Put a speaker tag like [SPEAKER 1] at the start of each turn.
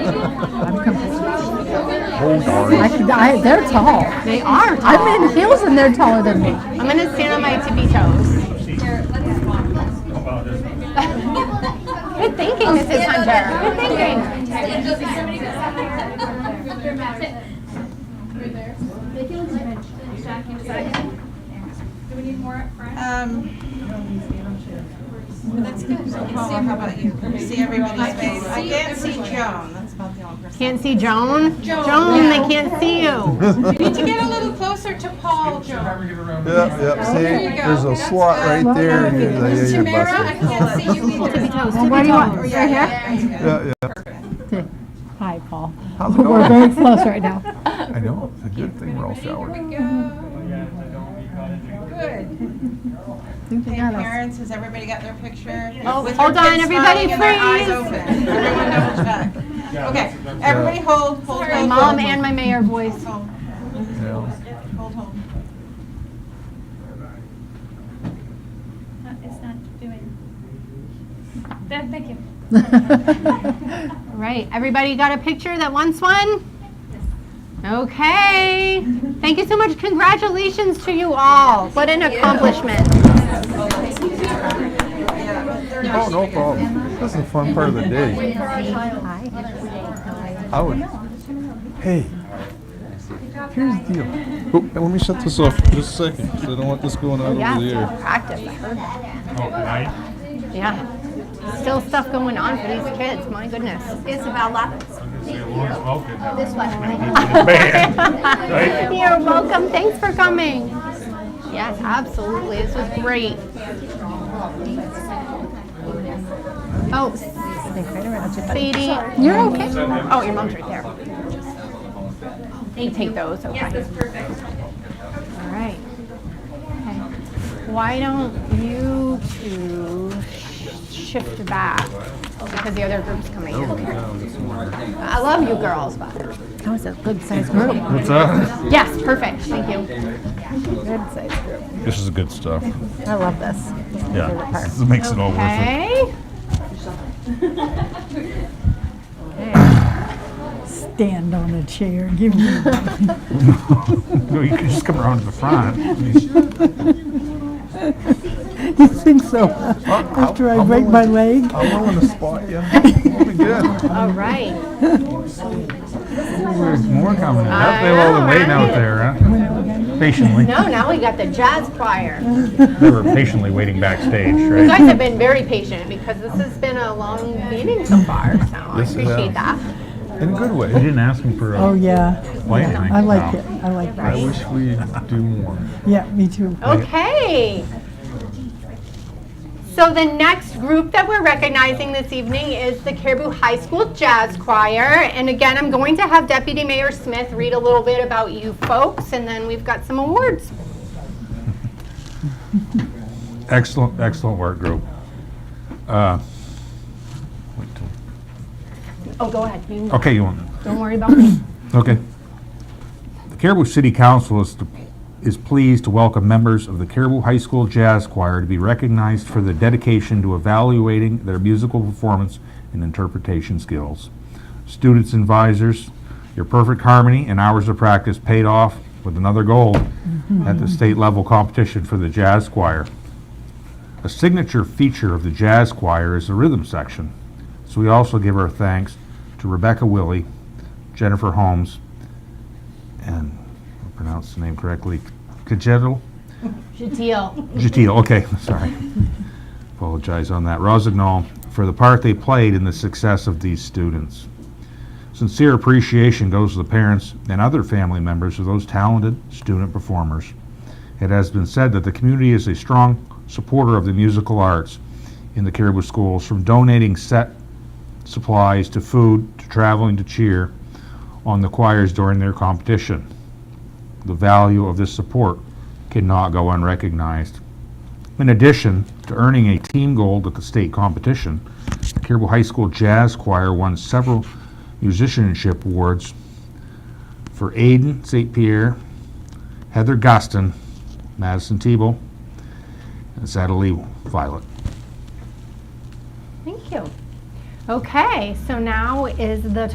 [SPEAKER 1] I'm com-
[SPEAKER 2] Oh, darn.
[SPEAKER 1] I, could- I, they're tall.
[SPEAKER 3] They are tall.
[SPEAKER 1] I'm in heels and they're taller than me.
[SPEAKER 3] I'm gonna stand on my tippy toes. Good thinking, Mrs. Hunter. Good thinking.
[SPEAKER 4] Do we need more up front?
[SPEAKER 5] Um, that's good. So Paula, how about you? Can you see everybody's face? I can't see Joan. That's about the only person.
[SPEAKER 3] Can't see Joan.
[SPEAKER 5] Joan.
[SPEAKER 3] Joan, they can't see you.
[SPEAKER 5] You need to get a little closer to Paul, Joan.
[SPEAKER 2] Yep, yep, see,
[SPEAKER 5] There you go.
[SPEAKER 2] there's a
[SPEAKER 5] That's
[SPEAKER 2] slot
[SPEAKER 5] good.
[SPEAKER 2] right there. and you're-
[SPEAKER 5] Miss
[SPEAKER 2] yeah,
[SPEAKER 5] Tamara, I
[SPEAKER 2] yeah, you're
[SPEAKER 5] can't see you
[SPEAKER 3] Tippy
[SPEAKER 5] either.
[SPEAKER 3] toes,
[SPEAKER 1] And what do
[SPEAKER 3] tippy
[SPEAKER 1] you want?
[SPEAKER 3] toes.
[SPEAKER 5] Yeah, yeah, that's good.
[SPEAKER 2] busted. Yeah, yeah.
[SPEAKER 1] Hi, Paul.
[SPEAKER 2] How's it
[SPEAKER 1] We're very
[SPEAKER 2] going?
[SPEAKER 1] close right now.
[SPEAKER 2] I know, it's a good thing we're all showered.
[SPEAKER 5] Good. Hey, parents, has everybody got their picture?
[SPEAKER 3] Oh,
[SPEAKER 5] With
[SPEAKER 3] hold
[SPEAKER 5] their
[SPEAKER 3] on,
[SPEAKER 5] kids
[SPEAKER 3] everybody
[SPEAKER 5] smiling and their eyes
[SPEAKER 3] freeze.
[SPEAKER 5] open. Everyone double check. Okay, everybody hold, hold,
[SPEAKER 3] My
[SPEAKER 5] hold.
[SPEAKER 3] mom
[SPEAKER 5] hold.
[SPEAKER 3] and my mayor voice.
[SPEAKER 5] Hold,
[SPEAKER 2] Yeah.
[SPEAKER 5] hold, hold.
[SPEAKER 4] Uh, It's not doing. Th- Thank you.
[SPEAKER 3] All right, everybody got a picture that wants one? Okay. Thank you so much. Congratulations to you all. What an accomplishment.
[SPEAKER 2] Oh, no problem. This is a fun part of the day. I would, hey, here's the deal. Oh, and let me shut this off for just a second, 'cause I don't want this going out
[SPEAKER 3] Oh, Yeah,
[SPEAKER 2] over the air.
[SPEAKER 3] practice. I heard that. Yeah. Still stuff going on for these kids. My goodness. Isabel Lopez. This one. You're welcome. Thanks for coming. Yes, absolutely. This was great. Oh, Sadie.
[SPEAKER 1] You're okay.
[SPEAKER 3] Oh, your mom's right there. They take those, okay. Yes, that's perfect. All right. Okay. Why don't you two shift back because the other group's coming in. I love you girls, but.
[SPEAKER 1] That was a good sized group.
[SPEAKER 2] What's that?
[SPEAKER 3] Yes, perfect, thank you.
[SPEAKER 1] Good sized group.
[SPEAKER 2] This is good stuff.
[SPEAKER 1] I love this.
[SPEAKER 2] Yeah, this makes it all worth it.
[SPEAKER 3] Okay.
[SPEAKER 1] Stand on a chair. Give me.
[SPEAKER 2] No, you can just come around to the front.
[SPEAKER 1] you think so? After I break my leg?
[SPEAKER 2] I'm willing to spot you. We'll be good.
[SPEAKER 3] All right.
[SPEAKER 6] There's more coming in.
[SPEAKER 3] I
[SPEAKER 6] They all
[SPEAKER 3] know,
[SPEAKER 6] been waiting out
[SPEAKER 3] right?
[SPEAKER 6] there, huh? Patiently.
[SPEAKER 3] No, now we got the jazz choir.
[SPEAKER 6] They were patiently waiting backstage,
[SPEAKER 3] You
[SPEAKER 6] right?
[SPEAKER 3] guys have been very patient because this has been a long meeting so far, so I
[SPEAKER 2] Yes, it has.
[SPEAKER 3] appreciate that.
[SPEAKER 2] In a good
[SPEAKER 6] We
[SPEAKER 2] way.
[SPEAKER 6] didn't ask them for
[SPEAKER 7] Oh,
[SPEAKER 6] a
[SPEAKER 7] yeah.
[SPEAKER 6] play thing.
[SPEAKER 7] I like it. I like
[SPEAKER 2] I
[SPEAKER 7] it.
[SPEAKER 2] wish we do more.
[SPEAKER 7] Yeah, me too.
[SPEAKER 3] Okay. So the next group that we're recognizing this evening is the Caribou High School Jazz Choir. And again, I'm going to have Deputy Mayor Smith read a little bit about you folks, and then we've got some awards.
[SPEAKER 6] Excellent, excellent work, group. Uh, wait till-
[SPEAKER 3] Oh, go ahead. You-
[SPEAKER 6] Okay, you want?
[SPEAKER 3] Don't worry about me.
[SPEAKER 6] Okay. The Caribou City Council is, is pleased to welcome members of the Caribou High School Jazz Choir to be recognized for their dedication to evaluating their musical performance and interpretation skills. Students and advisors, your perfect harmony and hours of practice paid off with another gold at the state level competition for the jazz choir. A signature feature of the jazz choir is the rhythm section, so we also give our thanks to Rebecca Willie, Jennifer Holmes, and I pronounced the name correctly, Kajetil?
[SPEAKER 3] Jadil.
[SPEAKER 6] Jatil, okay, sorry. Apologize on that. Rosignol, for the part they played in the success of these students. Sincere appreciation goes to the parents and other family members of those talented student performers. It has been said that the community is a strong supporter of the musical arts in the Caribou schools, from donating set supplies to food to traveling to cheer on the choirs during their competition. The value of this support cannot go unrecognized. In addition to earning a team gold at the state competition, the Caribou High School Jazz Choir won several musicianship awards for Aiden St. Pierre, Heather Guston, Madison Tebow, and Natalie Violet.
[SPEAKER 3] Thank you. Okay, so now is the